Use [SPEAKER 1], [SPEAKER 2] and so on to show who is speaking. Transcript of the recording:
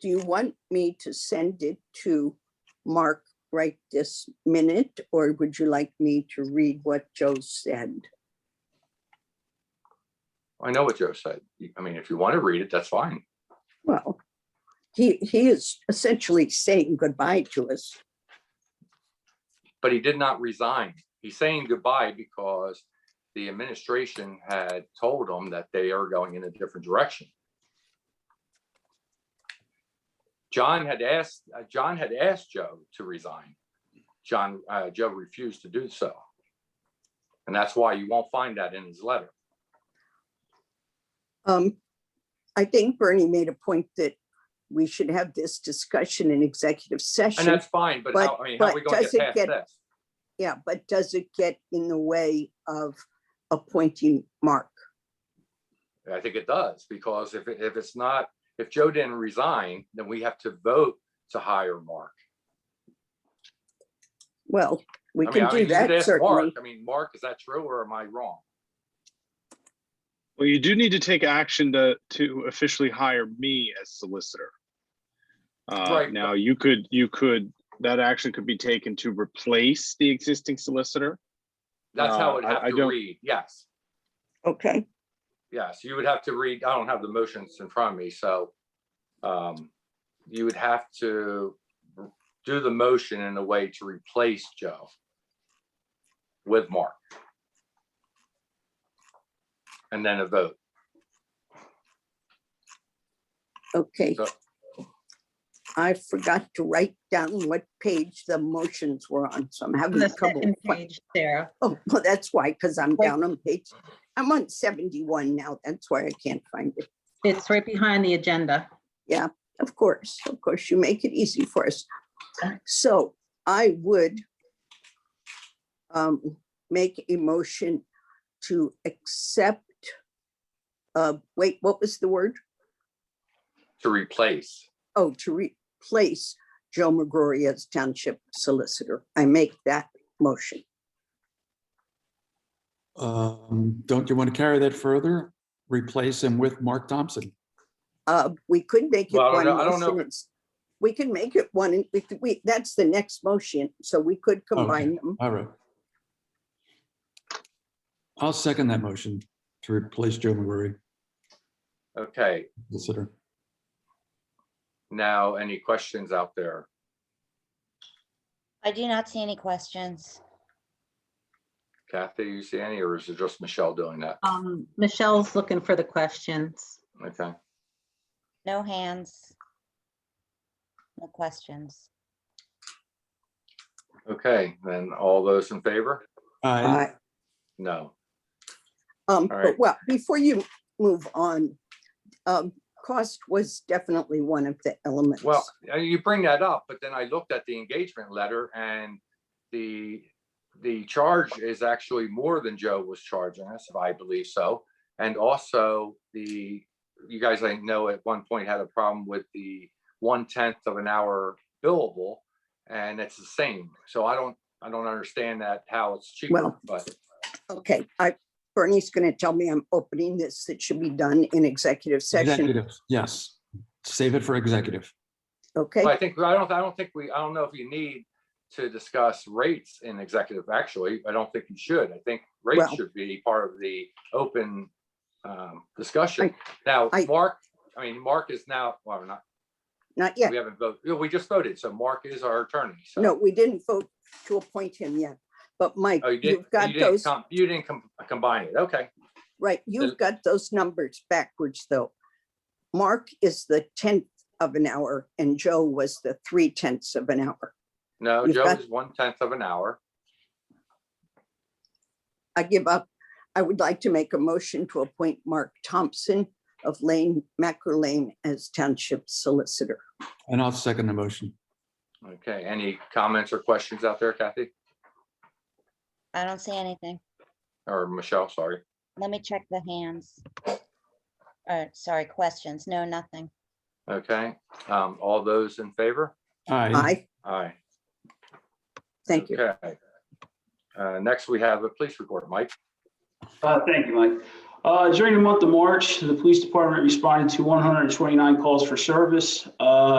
[SPEAKER 1] do you want me to send it to Mark right this minute? Or would you like me to read what Joe said?
[SPEAKER 2] I know what Joe said. You- I mean, if you want to read it, that's fine.
[SPEAKER 1] Well, he, he is essentially saying goodbye to us.
[SPEAKER 2] But he did not resign. He's saying goodbye because the administration had told him that they are going in a different direction. John had asked, uh, John had asked Joe to resign. John, uh, Joe refused to do so. And that's why you won't find that in his letter.
[SPEAKER 1] Um, I think Bernie made a point that we should have this discussion in executive
[SPEAKER 2] And
[SPEAKER 1] session.
[SPEAKER 2] that's fine, but
[SPEAKER 1] But-
[SPEAKER 2] how, I mean, how are we
[SPEAKER 1] but
[SPEAKER 2] going to
[SPEAKER 1] does it
[SPEAKER 2] get
[SPEAKER 1] get-
[SPEAKER 2] past this?
[SPEAKER 1] Yeah, but does it get in the way of appointing Mark?
[SPEAKER 2] I think it does, because if, it- if it's not, if Joe didn't resign, then we have to vote to hire Mark.
[SPEAKER 1] Well, we
[SPEAKER 2] I mean,
[SPEAKER 1] can
[SPEAKER 2] I mean,
[SPEAKER 1] do
[SPEAKER 2] you could
[SPEAKER 1] that
[SPEAKER 2] ask Mark.
[SPEAKER 1] certainly.
[SPEAKER 2] I mean, Mark, is that true or am I wrong?
[SPEAKER 3] Well, you do need to take action to, to officially hire me as solicitor. Uh,
[SPEAKER 2] Right.
[SPEAKER 3] now, you could, you could, that action could be taken to replace the existing solicitor.
[SPEAKER 2] That's how
[SPEAKER 3] Uh,
[SPEAKER 2] it
[SPEAKER 3] I-
[SPEAKER 2] have
[SPEAKER 3] I
[SPEAKER 2] to
[SPEAKER 3] don't-
[SPEAKER 2] read. Yes,
[SPEAKER 1] Okay,
[SPEAKER 2] yes. You would have to read, I don't have the motions in front of me, so um, you would have to do the motion in a way to replace Joe with Mark. And then a vote.
[SPEAKER 1] okay.
[SPEAKER 2] So-
[SPEAKER 1] I forgot to write down what page the motions were on, so I'm
[SPEAKER 4] On
[SPEAKER 1] having
[SPEAKER 4] the
[SPEAKER 1] trouble.
[SPEAKER 4] second
[SPEAKER 1] fi-
[SPEAKER 4] page, Sarah.
[SPEAKER 1] Oh, well, that's why, because I'm
[SPEAKER 4] Right.
[SPEAKER 1] down on page, I'm on seventy-one now. That's why I can't find it.
[SPEAKER 4] It's right behind the agenda.
[SPEAKER 1] Of course, of course, you make it easy for us. So I would um, make a motion to accept, uh, wait, what was the word?
[SPEAKER 2] to replace.
[SPEAKER 1] Oh, to replace Joe McGrory as township solicitor. I make that motion.
[SPEAKER 5] Um, don't you want to carry that further? Replace him with Mark Thompson?
[SPEAKER 1] Uh, we could make it
[SPEAKER 2] Well, I
[SPEAKER 1] one.
[SPEAKER 2] don't know- I don't know if
[SPEAKER 1] motion. It's- We can make it one, and we, could- we, that's the next motion, so we could combine them.
[SPEAKER 5] All right. I'll second that motion to replace Joe McGrory,
[SPEAKER 2] Okay,
[SPEAKER 5] consider.
[SPEAKER 2] now any questions out there?
[SPEAKER 6] I do not see any questions.
[SPEAKER 2] Kathy, you see any, or is it just Michelle doing that?
[SPEAKER 4] Um, Michelle's looking for the questions.
[SPEAKER 2] Okay,
[SPEAKER 6] No hands. No questions.
[SPEAKER 2] okay, then all those in favor?
[SPEAKER 5] Aye.
[SPEAKER 1] Aye.
[SPEAKER 2] No.
[SPEAKER 1] Uh, Um,
[SPEAKER 2] All
[SPEAKER 1] but
[SPEAKER 2] right.
[SPEAKER 1] well, before you move on, um, cost was definitely one of the elements.
[SPEAKER 2] Well, uh, you bring that up, but then I looked at the engagement letter and the, the charge is actually more than Joe was charging us, if I believe so. And also the, you guys, I know at one point had a problem with the one tenth of an hour billable. And it's the same. So I don't, I don't understand that, how it's cheaper,
[SPEAKER 1] Well,
[SPEAKER 2] but
[SPEAKER 1] Okay, I, Bernie's gonna tell me I'm opening this, that should be done in executive session,
[SPEAKER 5] Executive, Yes, save it for executive.
[SPEAKER 1] okay?
[SPEAKER 2] Well, I think, I don't, I don't think we, I don't know if you need to discuss rates in executive, actually, I don't think you should. I think rates
[SPEAKER 1] Well-
[SPEAKER 2] should be part of the open um, discussion. Now,
[SPEAKER 1] I-
[SPEAKER 2] Mark, I mean, Mark is now, well, not,
[SPEAKER 1] Not yet,
[SPEAKER 2] we haven't voted, we just voted, so Mark is our attorney, so.
[SPEAKER 1] no, we didn't vote to appoint him yet, but Mike,
[SPEAKER 2] Oh, you didn't,
[SPEAKER 1] you've got
[SPEAKER 2] you didn't,
[SPEAKER 1] those,
[SPEAKER 2] com- you didn't com- combine it, okay,
[SPEAKER 1] right, you've got those numbers backwards, though. Mark is the tenth of an hour and Joe was the three tenths of an hour.
[SPEAKER 2] no,
[SPEAKER 1] You've
[SPEAKER 2] Joe
[SPEAKER 1] got-
[SPEAKER 2] is one tenth of an hour,
[SPEAKER 1] I give up. I would like to make a motion to appoint Mark Thompson of Lane, Macro Lane as Township Solicitor.
[SPEAKER 5] And I'll second the motion.
[SPEAKER 2] okay, any comments or questions out there, Kathy,
[SPEAKER 6] I don't see anything.
[SPEAKER 2] or Michelle, sorry?
[SPEAKER 6] Let me check the hands. Or, sorry, questions. No, nothing.
[SPEAKER 2] Okay, um, all those in favor?
[SPEAKER 5] Aye.
[SPEAKER 1] Aye,
[SPEAKER 2] Aye.
[SPEAKER 1] thank you.
[SPEAKER 2] Okay. Uh, Next, we have a police report. Mike,
[SPEAKER 7] Uh, Thank you, Mike. Uh, During the month of March, the police department responded to 129 calls for service. Uh,